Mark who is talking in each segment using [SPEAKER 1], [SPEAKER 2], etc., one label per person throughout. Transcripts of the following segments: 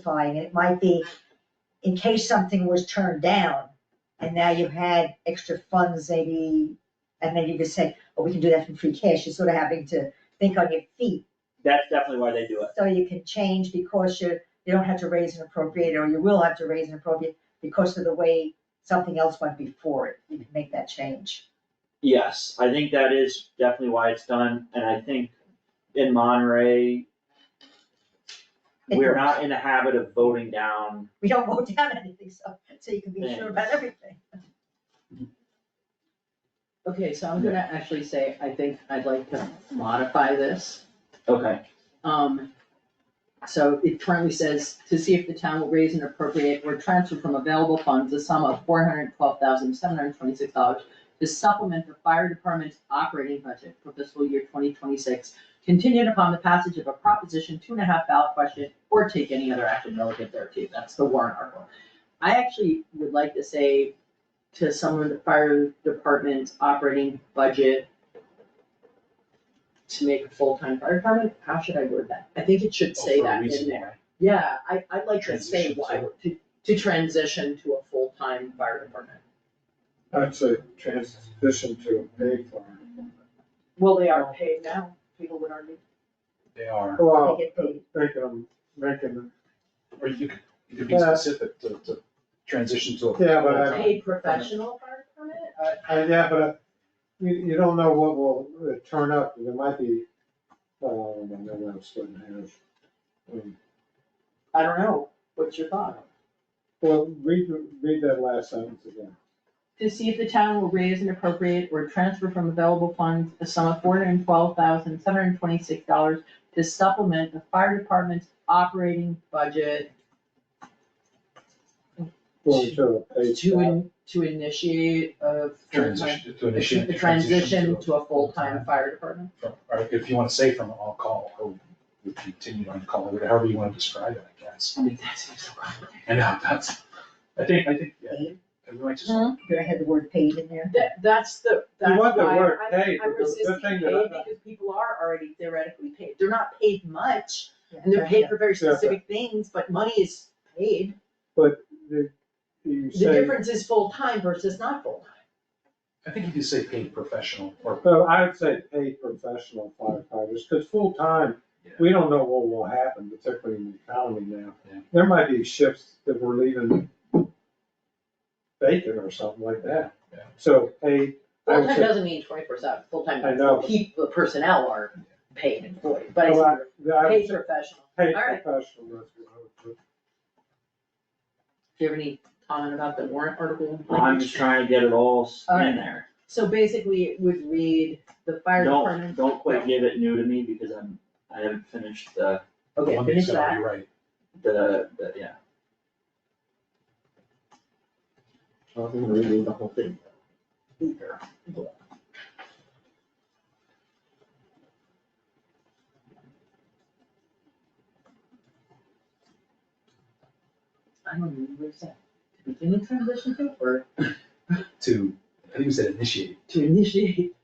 [SPEAKER 1] specifying, it might be in case something was turned down, and now you had extra funds maybe, and then you could say, oh, we can do that from free cash, you're sort of having to think on your feet.
[SPEAKER 2] That's definitely why they do it.
[SPEAKER 1] So you can change because you're, you don't have to raise and appropriate, or you will have to raise and appropriate because of the way something else went before it, you can make that change.
[SPEAKER 2] Yes, I think that is definitely why it's done, and I think in Monterey,
[SPEAKER 1] It
[SPEAKER 2] we're
[SPEAKER 1] works.
[SPEAKER 2] not in the habit of voting down.
[SPEAKER 1] We don't vote down anything, so, so you can be sure about everything.
[SPEAKER 3] Okay, so I'm gonna actually say, I think I'd like to modify this.
[SPEAKER 2] Okay.
[SPEAKER 3] Um, so it currently says, to see if the town will raise and appropriate or transfer from available funds a sum of four hundred twelve thousand seven hundred twenty-six dollars to supplement the fire department's operating budget for fiscal year twenty twenty-six, contingent upon the passage of a proposition two and a half ballot question or take any other action relative thereto. That's the warrant article. I actually would like to say to someone, the fire department's operating budget to make a full-time fire department, how should I word that? I think it
[SPEAKER 2] Oh,
[SPEAKER 3] should say that in there. Yeah, I, I'd like to say
[SPEAKER 4] Transition
[SPEAKER 3] why, to, to transition to a full-time fire department.
[SPEAKER 4] I'd say transition to a paid farm.
[SPEAKER 3] Well, they are paid now, people with our new.
[SPEAKER 5] They are.
[SPEAKER 4] Well,
[SPEAKER 1] They get paid.
[SPEAKER 4] making them, making them,
[SPEAKER 5] Or you could, you could be
[SPEAKER 4] Yeah.
[SPEAKER 5] specific to, to transition to a.
[SPEAKER 4] Yeah, but I-
[SPEAKER 3] Paid professional fire department? Uh,
[SPEAKER 4] I, yeah, but uh, you, you don't know what will uh, turn up, there might be, oh, I know I'm splitting hairs. Um,
[SPEAKER 3] I don't know, what's your thought?
[SPEAKER 4] Well, read, read that last sentence again.
[SPEAKER 3] To see if the town will raise and appropriate or transfer from available funds a sum of four hundred and twelve thousand, seven hundred and twenty-six dollars to supplement the fire department's operating budget
[SPEAKER 4] Going to a paid
[SPEAKER 3] to,
[SPEAKER 4] job.
[SPEAKER 3] in- to initiate a full-time.
[SPEAKER 5] Transition, to initiate.
[SPEAKER 3] a
[SPEAKER 5] the
[SPEAKER 3] Transition to a full-time fire department.
[SPEAKER 5] from- Or if you wanna say from an on-call, or we continue on-call, or however you wanna describe it, I guess.
[SPEAKER 3] I mean, that seems so complicated.
[SPEAKER 5] I know, that's, I think, I think, yeah,
[SPEAKER 1] Paid?
[SPEAKER 5] we might just.
[SPEAKER 3] Hmm?
[SPEAKER 1] Did I have the word paid in there?
[SPEAKER 3] That, that's the, that's
[SPEAKER 4] want the
[SPEAKER 3] why
[SPEAKER 4] word
[SPEAKER 3] I'm-
[SPEAKER 4] paid,
[SPEAKER 3] I'm
[SPEAKER 4] but the- the
[SPEAKER 3] resisting
[SPEAKER 4] thing
[SPEAKER 3] paid
[SPEAKER 4] that I-
[SPEAKER 3] because people are already theoretically paid. They're not paid much and they're paid for very
[SPEAKER 4] Yeah, but-
[SPEAKER 3] specific things, but money is paid.
[SPEAKER 4] The- You
[SPEAKER 3] The
[SPEAKER 4] say,
[SPEAKER 3] difference is full-time versus not full-time.
[SPEAKER 5] I think if you say paid professional or.
[SPEAKER 4] no, I would say paid professional firefighters, cause full-time, we don't know what will happen, particularly in the economy now.
[SPEAKER 5] Yeah.
[SPEAKER 4] There might be shifts that we're leaving vacant or something like that.
[SPEAKER 5] Yeah.
[SPEAKER 4] So paid, I would
[SPEAKER 3] Full-time
[SPEAKER 4] say,
[SPEAKER 3] doesn't mean twenty-four seven, full-time
[SPEAKER 4] I
[SPEAKER 3] means
[SPEAKER 4] know.
[SPEAKER 3] people, the personnel are paid employees, but I
[SPEAKER 4] Well,
[SPEAKER 3] see
[SPEAKER 4] I would
[SPEAKER 3] paid
[SPEAKER 4] say
[SPEAKER 3] professional.
[SPEAKER 4] paid
[SPEAKER 3] All right.
[SPEAKER 4] professional, that's what I would put.
[SPEAKER 3] Do you have any comment about the warrant article?
[SPEAKER 2] I'm just trying to get it all s-
[SPEAKER 3] Alright.
[SPEAKER 2] in there.
[SPEAKER 3] So basically, it would read the fire
[SPEAKER 2] Don't,
[SPEAKER 3] department.
[SPEAKER 2] don't quite give it new to me because I'm, I haven't finished the,
[SPEAKER 3] Okay,
[SPEAKER 5] One
[SPEAKER 3] finish
[SPEAKER 5] that's
[SPEAKER 3] that.
[SPEAKER 5] gotta be right,
[SPEAKER 2] the, the- yeah.
[SPEAKER 3] I'm gonna reread the whole thing. I don't remember what it said. To begin the transition to or
[SPEAKER 5] to, I think we said initiate,
[SPEAKER 3] to initiate?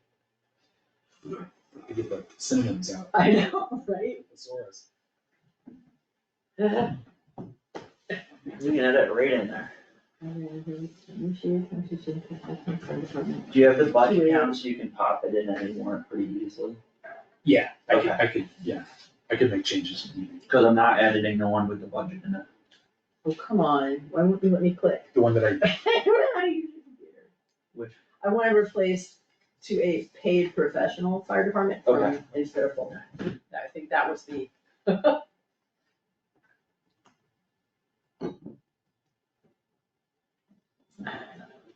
[SPEAKER 5] to get the synonyms out,
[SPEAKER 3] I know, right?
[SPEAKER 5] thesaurus.
[SPEAKER 2] We can have that right in there.
[SPEAKER 3] Initiate transition to full-time fire department.
[SPEAKER 2] Do you have the budget count so you can pop it in anymore pretty easily?
[SPEAKER 5] Yeah, I could,
[SPEAKER 2] Okay.
[SPEAKER 5] I could, yeah, I could make changes. if needed.
[SPEAKER 2] Cause I'm not editing the one with the budget in it.
[SPEAKER 3] Oh, come on, why won't you let me click?
[SPEAKER 5] The one that I,
[SPEAKER 3] I don't know how to use your computer.
[SPEAKER 2] Which-
[SPEAKER 3] I wanna replace to a paid professional fire department from
[SPEAKER 2] Okay.
[SPEAKER 3] instead of full-time. I think that was the.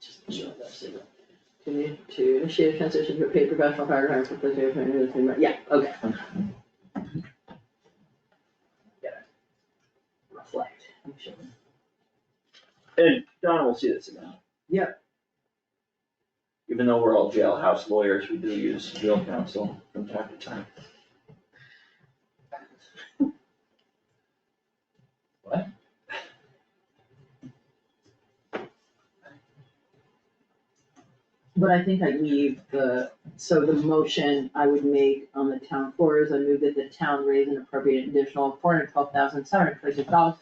[SPEAKER 3] Just show that signal. To, to initiate a transition to a paid professional fire department from full-time to full-time, yeah, okay. Gotta Reflect, I'm sure.
[SPEAKER 2] And Donna will see this again.
[SPEAKER 3] Yep.
[SPEAKER 2] Even though we're all jailhouse lawyers, we do use jail counsel from time to time. What?
[SPEAKER 3] But I think I'd leave the, so the motion I would make on the town floor is I move that the town raise and appropriate an additional four hundred twelve thousand seven hundred twenty-six dollars